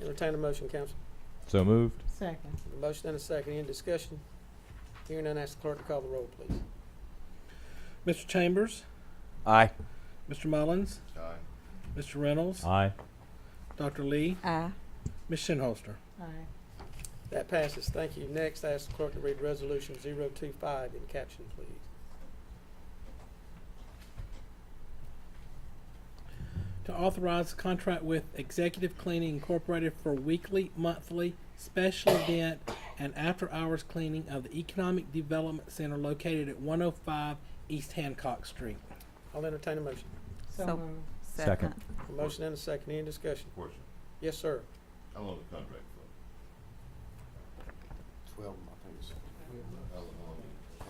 entertain a motion, council. So moved. Second. A motion and a second, any discussion? Hearing none, ask the clerk to call the roll, please. Mr. Chambers, Aye. Mr. Mullins, Aye. Mr. Reynolds, Aye. Dr. Lee, Aye. Ms. Shinholster. Aye. That passes, thank you. Next, ask the clerk to read Resolution 025 in caption, please. To authorize a contract with Executive Cleaning Incorporated for weekly, monthly, special event, and after-hours cleaning of the Economic Development Center located at one oh five East Hancock Street. I'll entertain a motion. So So- moved. Second. A motion and a second, any discussion? Question, Yes, sir. how long the contract for? twelve, I think it's, How long?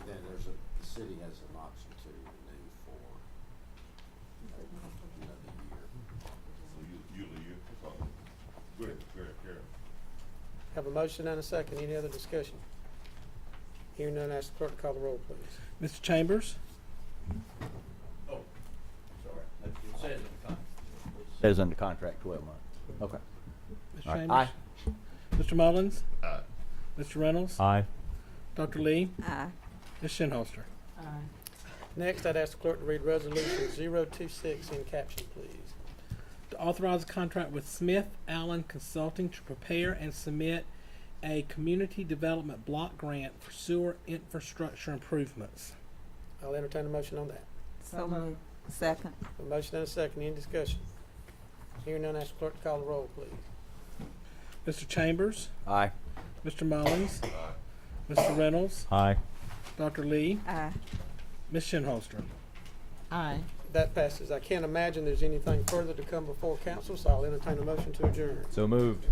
and then there's a, the city has an option to renew for another year. So you, you, you, oh, great, great, great. Have a motion and a second, any other discussion? Hearing none, ask the clerk to call the roll, please. Mr. Chambers, Oh, sorry, it says in the contract. Says under contract twelve months. Okay. Mr. All right. Aye. Chambers. Mr. Mullins, Aye. Mr. Reynolds, Aye. Dr. Lee, Aye. Ms. Shinholster. Aye. Next, I'd ask the clerk to read Resolution 026 in caption, please. to authorize a contract with Smith Allen Consulting to prepare and submit a community development block grant for sewer infrastructure improvements. I'll entertain a motion on that. So moved. Second. A motion and a second, any discussion? Hearing none, ask the clerk to call the roll, please. Mr. Chambers, Aye. Mr. Mullins, Aye. Mr. Reynolds, Aye. Dr. Lee, Aye. Ms. Shinholster. Aye. That passes. I can't imagine there's anything further to come before council, so I'll entertain a motion to adjourn. So moved.